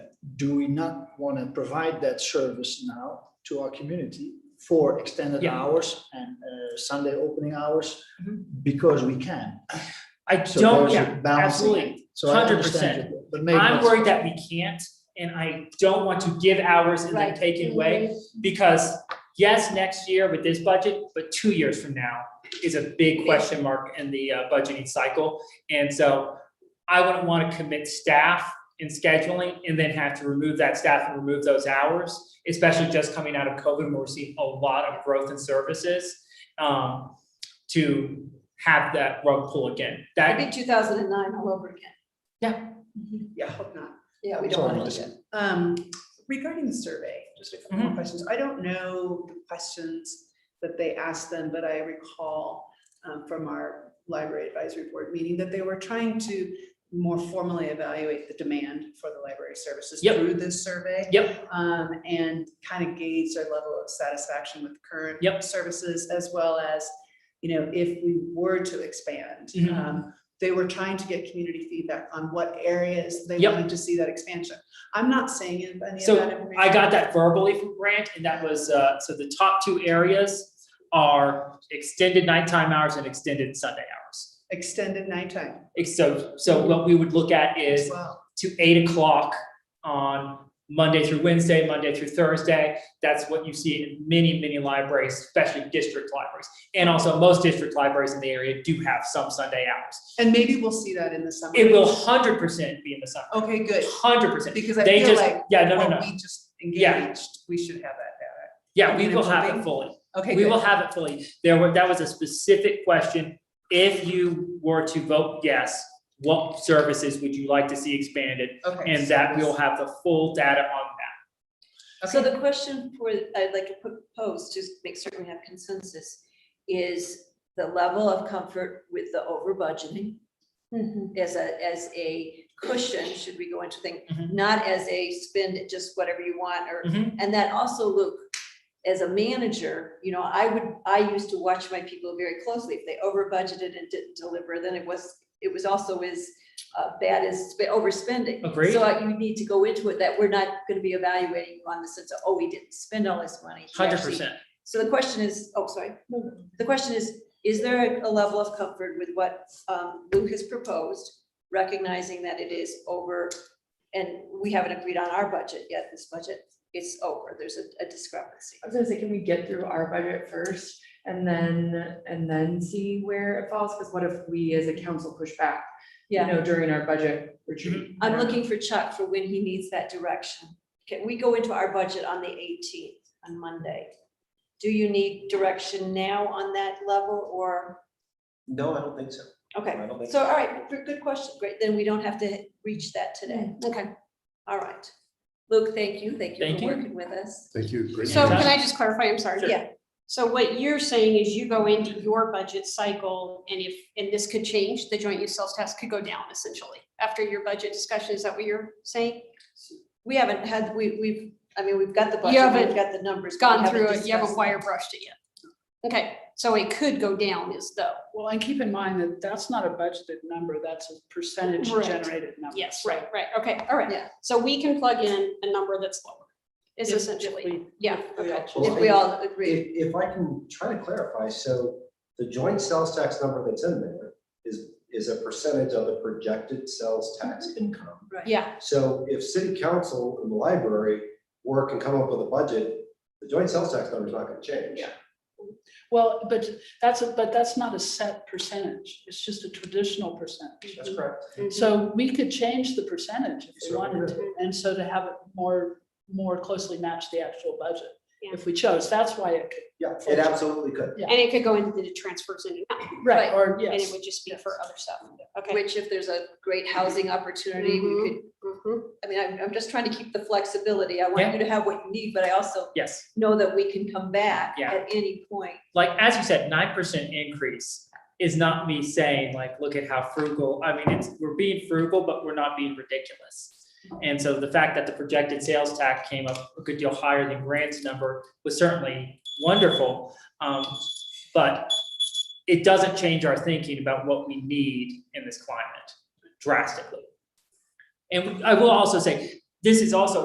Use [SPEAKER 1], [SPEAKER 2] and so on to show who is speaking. [SPEAKER 1] do we not want to provide that service now to our community for extended
[SPEAKER 2] Yeah.
[SPEAKER 1] hours and uh, Sunday opening hours?
[SPEAKER 2] Mhm.
[SPEAKER 1] Because we can.
[SPEAKER 2] I
[SPEAKER 1] So
[SPEAKER 2] don't,
[SPEAKER 1] there's a
[SPEAKER 2] yeah,
[SPEAKER 1] balancing
[SPEAKER 2] absolutely.
[SPEAKER 1] So I
[SPEAKER 2] 100%.
[SPEAKER 1] understand, you, but maybe.
[SPEAKER 2] I'm
[SPEAKER 1] that's-
[SPEAKER 2] worried that we can't, and I don't want to give hours and then
[SPEAKER 3] Right.
[SPEAKER 2] take it away. Because yes, next year with this budget, but two years from now is a big question mark in the uh, budgeting cycle. And so I wouldn't want to commit staff in scheduling and then have to remove that staff and remove those hours, especially just coming out of COVID, where we're seeing a lot of growth in services um, to have that rug pull again.
[SPEAKER 3] I
[SPEAKER 2] That,
[SPEAKER 3] think two thousand and nine all over again.
[SPEAKER 4] Yeah, hope not.
[SPEAKER 3] Yeah,
[SPEAKER 1] Sorry,
[SPEAKER 3] we don't want to do
[SPEAKER 1] Melissa.
[SPEAKER 3] that.
[SPEAKER 4] Um, regarding the survey, just a couple
[SPEAKER 2] Mm-hmm.
[SPEAKER 4] more questions. I don't know the questions that they asked them, but I recall um, from our library advisory board meeting that they were trying to more formally evaluate the demand for the library services
[SPEAKER 2] Yep.
[SPEAKER 4] through this survey.
[SPEAKER 2] Yep.
[SPEAKER 4] Um, and kind of gauge their level of satisfaction with current
[SPEAKER 2] Yep.
[SPEAKER 4] services as well as, you know, if we were to expand.
[SPEAKER 2] Mhm.
[SPEAKER 4] um, They were trying to get community feedback on what areas they
[SPEAKER 2] Yep.
[SPEAKER 4] wanted to see that expansion. I'm not saying any of that.
[SPEAKER 2] So,
[SPEAKER 4] information.
[SPEAKER 2] I got that verbally from Grant, and that was, uh, so the top two areas are extended nighttime hours and extended Sunday hours.
[SPEAKER 4] Extended nighttime
[SPEAKER 2] Ex- So, so what we would look at
[SPEAKER 4] as
[SPEAKER 2] is
[SPEAKER 4] well.
[SPEAKER 2] to eight o'clock on Monday through Wednesday, Monday through Thursday. That's what you see in many, many libraries, especially district libraries. And also most district libraries in the area do have some Sunday hours.
[SPEAKER 4] And maybe we'll see that in the summer.
[SPEAKER 2] It will hundred percent be in the summer,
[SPEAKER 4] Okay, good,
[SPEAKER 2] hundred percent.
[SPEAKER 4] because I
[SPEAKER 2] They
[SPEAKER 4] feel
[SPEAKER 2] just,
[SPEAKER 4] like
[SPEAKER 2] yeah, no, no,
[SPEAKER 4] when
[SPEAKER 2] no.
[SPEAKER 4] we just
[SPEAKER 2] Yeah.
[SPEAKER 4] engaged, we should have that
[SPEAKER 2] Yeah, we
[SPEAKER 4] when
[SPEAKER 2] will
[SPEAKER 4] it's
[SPEAKER 2] have it
[SPEAKER 4] moving.
[SPEAKER 2] fully.
[SPEAKER 4] data. Okay,
[SPEAKER 2] We will
[SPEAKER 4] good.
[SPEAKER 2] have it fully. There were, that was a specific question. If you were to vote yes, what services would you like to see expanded?
[SPEAKER 4] Okay.
[SPEAKER 2] And
[SPEAKER 4] so
[SPEAKER 2] that
[SPEAKER 4] this-
[SPEAKER 2] we'll have the full data on that.
[SPEAKER 3] So the question for, I'd like to propose, to make certain we have consensus, is the level of comfort with the over budgeting as a, as a cushion, should we go into thing,
[SPEAKER 2] Mhm.
[SPEAKER 3] not as a spend it just whatever you want, or,
[SPEAKER 2] Mhm.
[SPEAKER 3] and that also, Luke, as a manager, you know, I would, I used to watch my people very closely. If they over budgeted and didn't deliver, then it was, it was also as uh, bad as sp- overspending.
[SPEAKER 2] Agreed.
[SPEAKER 3] So uh, you need to go into it that we're not gonna be evaluating you on the sense of, oh, we didn't spend all this money. He
[SPEAKER 2] Hundred
[SPEAKER 3] actually-
[SPEAKER 2] percent.
[SPEAKER 3] So the question is, oh, sorry, the question is, is there a- a level of comfort with what um, Lou has proposed? Recognizing that it is over, and we haven't agreed on our budget yet, this budget, it's over, there's a- a discrepancy.
[SPEAKER 5] I was gonna say, can we get through our budget first and then, and then see where it falls? Because what if we as a council push back? You
[SPEAKER 3] Yeah,
[SPEAKER 5] know, during our budget
[SPEAKER 2] Mm-hmm.
[SPEAKER 5] retreat.
[SPEAKER 3] I'm looking for Chuck for when he needs that direction. Can we go into our budget on the eighteenth, on Monday? Do you need direction now on that level, or,
[SPEAKER 6] No, I don't think so.
[SPEAKER 3] okay?
[SPEAKER 6] I don't think
[SPEAKER 3] So, all right, good- good question. Great, then we don't have to reach that today. Okay. All right. Luke, thank you. Thank you
[SPEAKER 2] Thank
[SPEAKER 3] for
[SPEAKER 2] you.
[SPEAKER 3] working with us.
[SPEAKER 7] Thank you. Great
[SPEAKER 8] So
[SPEAKER 7] meeting.
[SPEAKER 8] can I just clarify? I'm sorry.
[SPEAKER 2] Sure.
[SPEAKER 3] Yeah.
[SPEAKER 8] So what you're saying is you go into your budget cycle and if, and this could change, the joint use sales tax could go down essentially after your budget discussion. Is that what you're saying?
[SPEAKER 3] We haven't had, we, we've, I mean, we've got the
[SPEAKER 8] You
[SPEAKER 3] budget,
[SPEAKER 8] haven't
[SPEAKER 3] we've got the numbers.
[SPEAKER 8] It's
[SPEAKER 3] but we
[SPEAKER 8] gone through
[SPEAKER 3] haven't
[SPEAKER 8] it. You haven't
[SPEAKER 3] discussed
[SPEAKER 8] wire
[SPEAKER 3] it.
[SPEAKER 8] brushed it yet. Okay, so it could go down is though.
[SPEAKER 9] Well, and keep in mind that that's not a budgeted number, that's a percentage
[SPEAKER 8] Right.
[SPEAKER 9] generated number.
[SPEAKER 8] Yes,
[SPEAKER 9] so
[SPEAKER 8] right, right. Okay, all right.
[SPEAKER 3] Yeah.
[SPEAKER 8] So we can plug in a number that's lower is
[SPEAKER 9] If- if
[SPEAKER 8] essentially,
[SPEAKER 9] we-
[SPEAKER 8] yeah,
[SPEAKER 9] we
[SPEAKER 8] okay.
[SPEAKER 9] actually-
[SPEAKER 3] If we all agree,
[SPEAKER 6] If, if I can try to clarify, so the joint sales tax number that's in there is, is a percentage of the projected sales tax income.
[SPEAKER 3] right.
[SPEAKER 8] Yeah,
[SPEAKER 6] So if city council and the library work and come up with a budget, the joint sales tax number is not gonna change.
[SPEAKER 9] Yeah. Well, but that's, a but that's not a set percentage, it's just a traditional percentage.
[SPEAKER 6] That's correct.
[SPEAKER 9] Mm-hmm. So we could change the percentage if we
[SPEAKER 6] Sure.
[SPEAKER 9] wanted to, and so to have it more, more closely match the actual budget.
[SPEAKER 8] Yeah.
[SPEAKER 9] If we chose, that's why it could,
[SPEAKER 6] Yeah, it absolutely could.
[SPEAKER 8] and it could go into the transfers in and out
[SPEAKER 9] right, or
[SPEAKER 8] and it
[SPEAKER 9] yes,
[SPEAKER 8] would just be for other stuff. Okay.
[SPEAKER 3] Which if there's a great housing opportunity, we could,
[SPEAKER 8] Mhm.
[SPEAKER 3] I mean, I'm, I'm just trying to keep the flexibility. I want
[SPEAKER 2] Yeah.
[SPEAKER 3] you to have what you need, but I also
[SPEAKER 2] Yes.
[SPEAKER 3] know that we can come back
[SPEAKER 2] Yeah.
[SPEAKER 3] at any point.
[SPEAKER 2] Like, as you said, nine percent increase is not me saying like, look at how frugal, I mean, it's, we're being frugal, but we're not being ridiculous. And so the fact that the projected sales tax came up a good deal higher than Grant's number was certainly wonderful. Um, but it doesn't change our thinking about what we need in this climate drastically. And I will also say, this is also